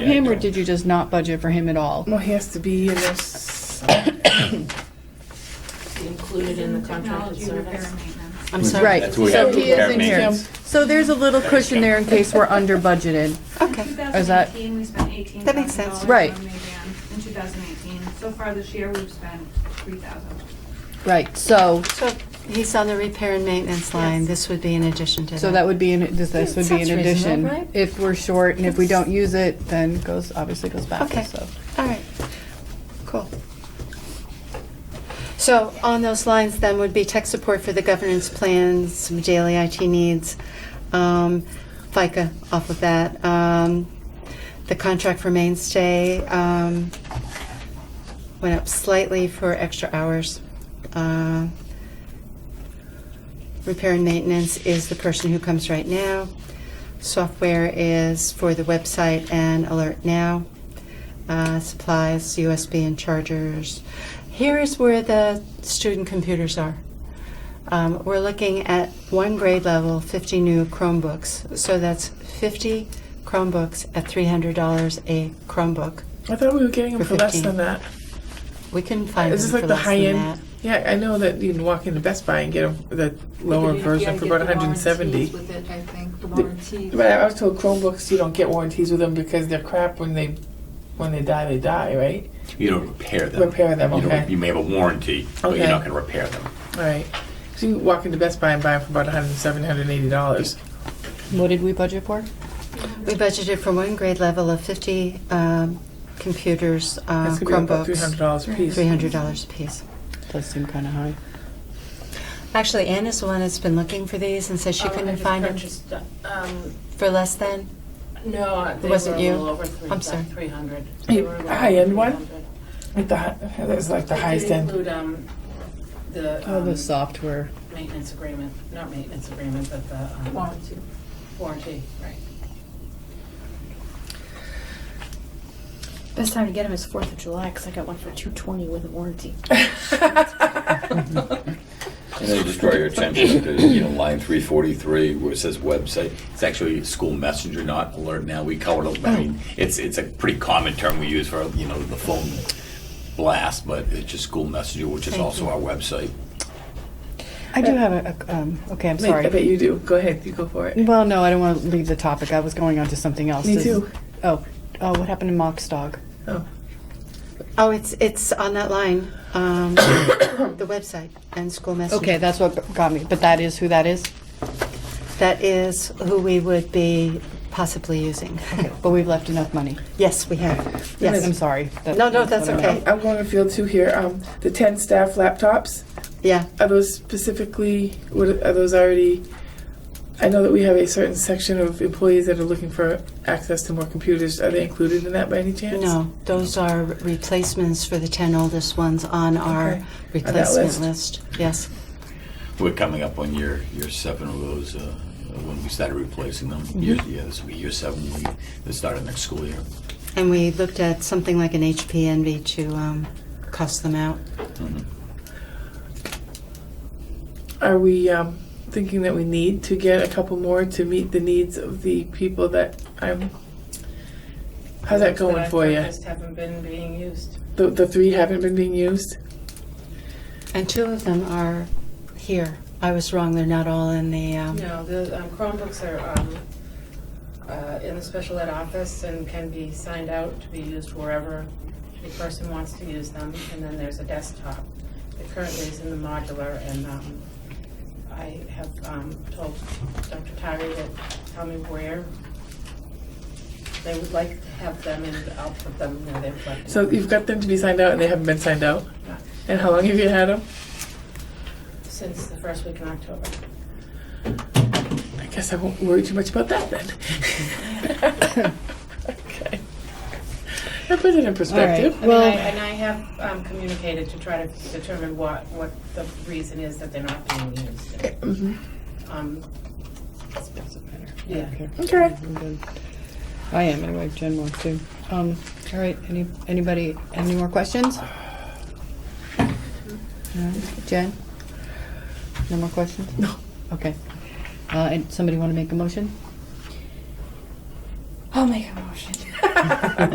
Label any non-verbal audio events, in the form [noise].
him, or did you just not budget for him at all? Well, he has to be in this. included in the contracted service. I'm sorry. Right, That's what we so have to he is in prepare here. maintenance. So there's a little cushion there in case we're under budgeted. Okay. Is that- 2018, we spent $18,000 That makes sense. on Right. Maydan In 2018. So far this year, we've spent 3,000. Right, so, So he's on the repair and maintenance line. Yes. This would be in addition to that. so that would be, in- this this would be Sounds in addition. reasonable, right? If we're short and if we don't use it, then goes, obviously goes back, Okay. so. All right. Cool. So on those lines then would be tech support for the governance plans, some daily IT needs, um, FICA off of that, um, the contract for mainstay, um, went up slightly for extra hours. Uh, Repair and maintenance is the person who comes right now. Software is for the website and Alert Now. Uh, supplies, USB and chargers. Here is where the student computers are. Um, we're looking at one grade level, 50 new Chromebooks. So that's 50 Chromebooks at $300 a Chromebook. I thought we were getting him For for less 15. than that. We can find Is them this for like the less high than end? that. Yeah, I know that you can walk into Best Buy and get a, the lower version for about 170. With it, I think, the The- warranties. But I was told Chromebooks you don't get warranties with them because they're crap when they when they die they die right. You don't repair them. Repair them, You don't- okay. You may have a warranty, but you're Okay. not gonna repair them. All right. So you walk into Best Buy and buy them for about 170, 180 dollars. What did we budget for? We budgeted for one grade level of 50 um, computers, uh, That's gonna be about 300 Chromebooks, dollars a piece. $300 a piece. Does seem kind of high. Actually, Anne is the one that's been looking for these and says she Um, I couldn't just find them purchased, Um, for less than. no, uh, they were a wasn't you? little over three, I'm sorry. three hundred. Hey, high-end one? Like the hi- that was like the highest end. Include, um, the, Oh, um, the software. maintenance agreement, not maintenance agreement, but the, um, Warranty. warranty, right. Best time to get them is Fourth of July because I got one for two twenty with a warranty. And then just draw your attention to, you know, line three forty-three, where it says website, it's actually school messenger, not alert now, we covered Oh. it, I mean, it's, it's a pretty common term we use for, you know, the phone blast, but it's just school messenger, which is Thank also our website. I do have a, a- um, okay, I'm Wait, I bet sorry. you do. Go ahead, you go for it. Well, no, I don't want to leave the topic. I was going on to something else. Me Is- too. Oh, oh, what happened to Mock's dog? Oh, Oh, it's, it's on that line, um, [coughs] the website and school messenger. Okay, that's what got me, but that is who that is? That is who we would be possibly using. [laughs] But we've left enough money. Yes, we have. Yes. I'm sorry. That- No, no, that's okay. I'm going to field two here. Um, the 10 staff laptops. Yeah. Are those specifically, what are are those already? I know that we have a certain section of employees that are looking for access to more computers. Are they included in that by any chance? No, those are replacements for the 10 oldest ones on our Okay. replacement list. list. Yes. We're coming up on year, year seven of those, uh, when we started replacing them, year, Mm-hmm. yeah, this will be year seven, when we, they started next school year. And we looked at something like an HP Envy to um, cost them out. Mm-hmm. Are we um, thinking that we need to get a couple more to meet the needs of the people that I'm? How's that going for you? Just haven't been being used. The, the three haven't been being used. And two of them are here. I was wrong, they're not all in the, um, No, the um, Chromebooks are um, uh, in the special ed office and can be signed out to be used wherever the person wants to use them. And then there's a desktop that currently is in the modular. And um, I have um, told Dr. Tyree to tell me where they would like to have them and I'll put them where they would like. So you've got them to be signed out, and they haven't been signed out. And how long have you had them? Since the first week in October. I guess I won't worry too much about that then. [laughs] okay. I put it in perspective. I mean, I- and I have um, communicated to try to determine what, what the reason is that they're not being used. Um, Yeah. Okay. I'm good. I am anyway. Jen wants to. Um, all right. Any anybody any more questions? All right. Jen, no more questions. No. Okay. Uh, and somebody want to make a motion? I'll make a motion.